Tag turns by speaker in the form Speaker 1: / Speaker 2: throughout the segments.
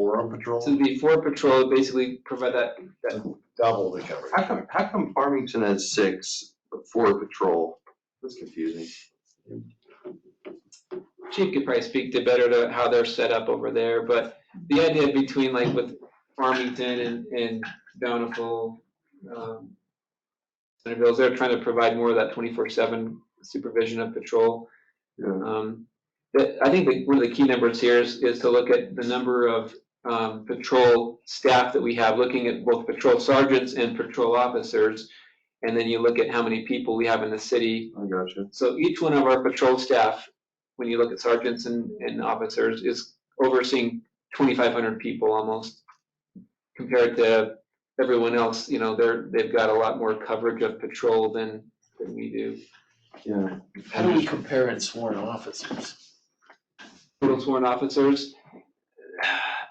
Speaker 1: Or on patrol,
Speaker 2: So it'd be for patrol, basically provide that,
Speaker 1: double the coverage.
Speaker 3: How come, how come Farmington has six, but four patrol? That's confusing.
Speaker 2: Chief could probably speak to better to how they're set up over there, but the idea between like with Farmington and, and Bountiful, um, Centerville's, they're trying to provide more of that twenty-four seven supervision of patrol.
Speaker 3: Yeah.
Speaker 2: Um, But I think that one of the key numbers here is, is to look at the number of um, patrol staff that we have, looking at both patrol sergeants and patrol officers. And then you look at how many people we have in the city.
Speaker 3: I gotcha.
Speaker 2: So each one of our patrol staff, when you look at sergeants and, and officers, is overseeing 2,500 people almost. Compared to everyone else, you know, they're, they've got a lot more coverage of patrol than, than we do.
Speaker 3: Yeah.
Speaker 4: How do we compare in sworn officers?
Speaker 2: total sworn officers.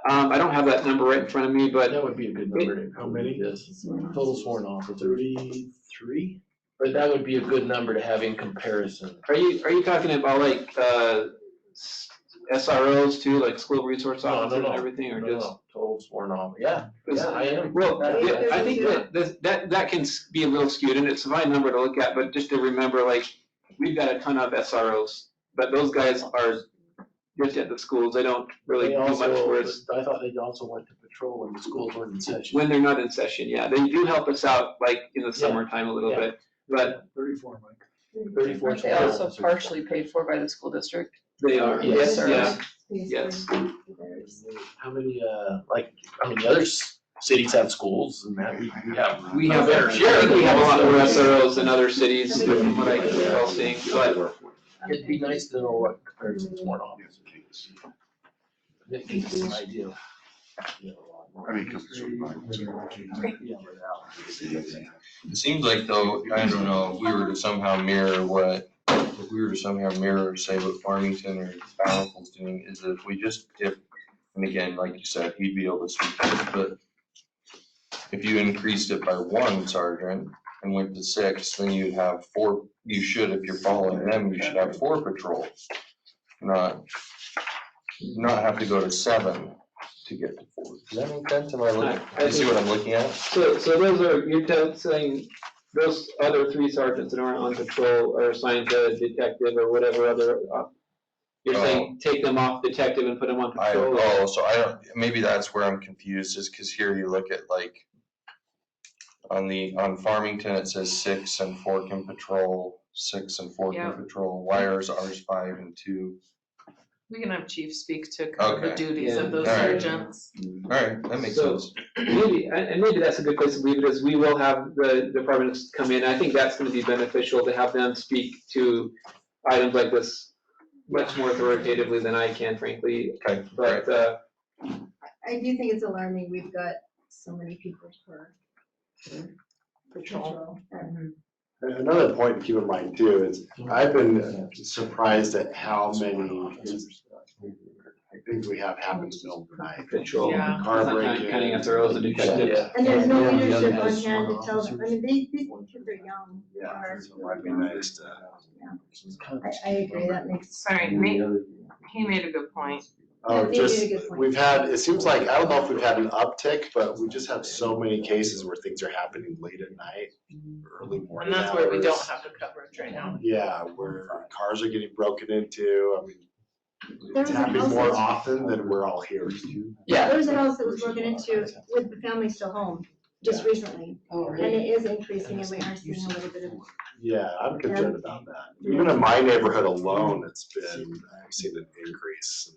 Speaker 2: Um, I don't have that number right in front of me, but
Speaker 4: That would be a good number to.
Speaker 1: How many?
Speaker 4: Yes, total sworn officers. Thirty-three? But that would be a good number to have in comparison.
Speaker 2: are you, are you talking about like, uh, s- SROs too, like school resource
Speaker 4: No, no,
Speaker 2: officers and
Speaker 4: no.
Speaker 2: everything, or
Speaker 4: No,
Speaker 2: just?
Speaker 4: no, Total sworn off, yeah,
Speaker 2: 'cause-
Speaker 4: yeah, I am.
Speaker 2: Well,
Speaker 4: That-
Speaker 2: yeah, I think
Speaker 4: yeah.
Speaker 2: that, that- that, that can s- be a little skewed, and it's a fine number to look at, but just to remember, like, we've got a ton of SROs, but those guys are just at the schools, they don't really
Speaker 4: They
Speaker 2: do much
Speaker 4: also-
Speaker 2: for us.
Speaker 4: I thought they also went to patrol when the schools weren't in session.
Speaker 2: When they're not in session, yeah, they do help us out, like, in the
Speaker 4: Yeah.
Speaker 2: summertime a little
Speaker 4: Yeah.
Speaker 2: bit, but
Speaker 1: Thirty-four, Mike.
Speaker 4: Thirty-four
Speaker 5: Aren't they
Speaker 4: sworn
Speaker 5: also
Speaker 4: officers.
Speaker 5: partially paid for by the school district?
Speaker 2: they are,
Speaker 4: Yes,
Speaker 2: yes,
Speaker 5: sir.
Speaker 2: yeah. Yes.
Speaker 6: Yes.
Speaker 4: How many, uh, like, I mean, the other s- cities have schools and that, we we have
Speaker 2: We have, I think we have a lot more SROs than other cities, from what I can tell seeing, but
Speaker 4: It'd be nice to know what comparison sworn officers. That gives us an idea. of, you know, a lot more.
Speaker 1: I mean, because it's mine.
Speaker 4: Yeah, without-
Speaker 3: It seems like though, I don't know, if we were to somehow mirror what, if we were to somehow mirror, say what Farmington or Bountiful's doing, is if we just if, and again, like you said, he'd be able to speak to it, but if you increased it by one sergeant and went to six, then you'd have four, you should, if you're following them, you should have four patrols. Not, not have to go to seven to get to four. Does that make sense? Am I looking,
Speaker 2: I- I
Speaker 3: do you see
Speaker 2: think-
Speaker 3: what I'm looking at?
Speaker 2: So, so those are, you're tell- saying, those other three sergeants that aren't on patrol are assigned to detective or whatever other, uh, you're saying, take them off detective and put them on
Speaker 3: Oh. I,
Speaker 2: patrol?
Speaker 3: oh, so I don't, maybe that's where I'm confused, is because here you look at like, on the, on Farmington, it says six and four can patrol, six and four
Speaker 5: Yeah.
Speaker 3: can patrol, why is ours five and two?
Speaker 5: We can have chief speak to kind of the
Speaker 3: Okay.
Speaker 5: duties
Speaker 2: Yeah.
Speaker 5: of those
Speaker 3: Alright.
Speaker 5: sergeants.
Speaker 3: Alright, that makes
Speaker 2: So-
Speaker 3: sense.
Speaker 2: Maybe, and, and maybe that's a good place to leave it, is we will have the departments come in, I think that's gonna be beneficial to have them speak to items like this much more authoritatively than I can frankly,
Speaker 3: Okay, right,
Speaker 2: but, uh,
Speaker 6: I do think it's alarming, we've got so many people per patrol.
Speaker 7: Another point to keep in mind too is I've been surprised at how many things we have happen to Bill tonight.
Speaker 2: control.
Speaker 5: Yeah.
Speaker 7: Car
Speaker 2: Counting- Counting up
Speaker 7: break-ins.
Speaker 2: the rows of detectives.
Speaker 4: Yeah.
Speaker 6: And there's no
Speaker 4: Yeah, the other
Speaker 6: leadership on
Speaker 4: has
Speaker 6: hand to
Speaker 4: sworn
Speaker 6: tell them, I mean, they, these kids are young.
Speaker 7: Yeah,
Speaker 6: are-
Speaker 7: so it might be nice to-
Speaker 6: I, I agree, that makes,
Speaker 5: Sorry, ma- he made a good point.
Speaker 6: Yeah,
Speaker 7: Oh,
Speaker 6: they
Speaker 7: just,
Speaker 6: made a good point.
Speaker 7: we've had, it seems like, I don't know if we've had an uptick, but we just have so many cases where things are happening late at night, early morning
Speaker 5: And that's where we don't
Speaker 7: hours.
Speaker 5: have the coverage right now.
Speaker 7: Yeah, where cars are getting broken into, I mean,
Speaker 6: There
Speaker 7: it's
Speaker 6: was a
Speaker 7: happening
Speaker 6: house
Speaker 7: more
Speaker 6: that-
Speaker 7: often than we're all here.
Speaker 6: there was a house that was broken into with the family still home, just recently. And it is increasing and we are seeing a little bit of,
Speaker 7: Yeah, I'm concerned about that. Even in my neighborhood alone, it's been, I've seen an increase.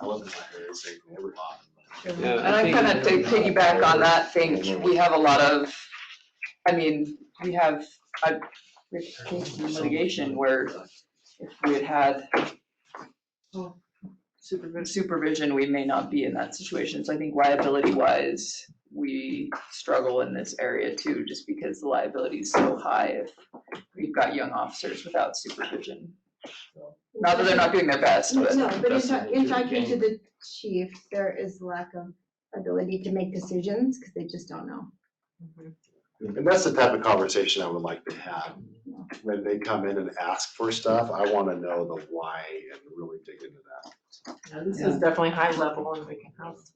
Speaker 7: I live in my very same neighborhood.
Speaker 2: Yeah,
Speaker 8: And I'm kind of to piggyback on that thing, we have a lot of, I mean, we have a case in litigation where if we had had supervi- supervision, we may not be in that situation. So I think liability wise, we struggle in this area too, just because the liability is so high if we've got young officers without supervision. Not that they're not doing their best, but.
Speaker 6: No, but in
Speaker 4: that's
Speaker 6: talk-
Speaker 4: what
Speaker 6: in
Speaker 4: you're
Speaker 6: talking to
Speaker 4: getting.
Speaker 6: the chief, there is lack of ability to make decisions because they just don't know.
Speaker 7: And that's the type of conversation I would like to have. When they come in and ask for stuff, I want to know the why and really dig into that.
Speaker 5: This is definitely high level and we can have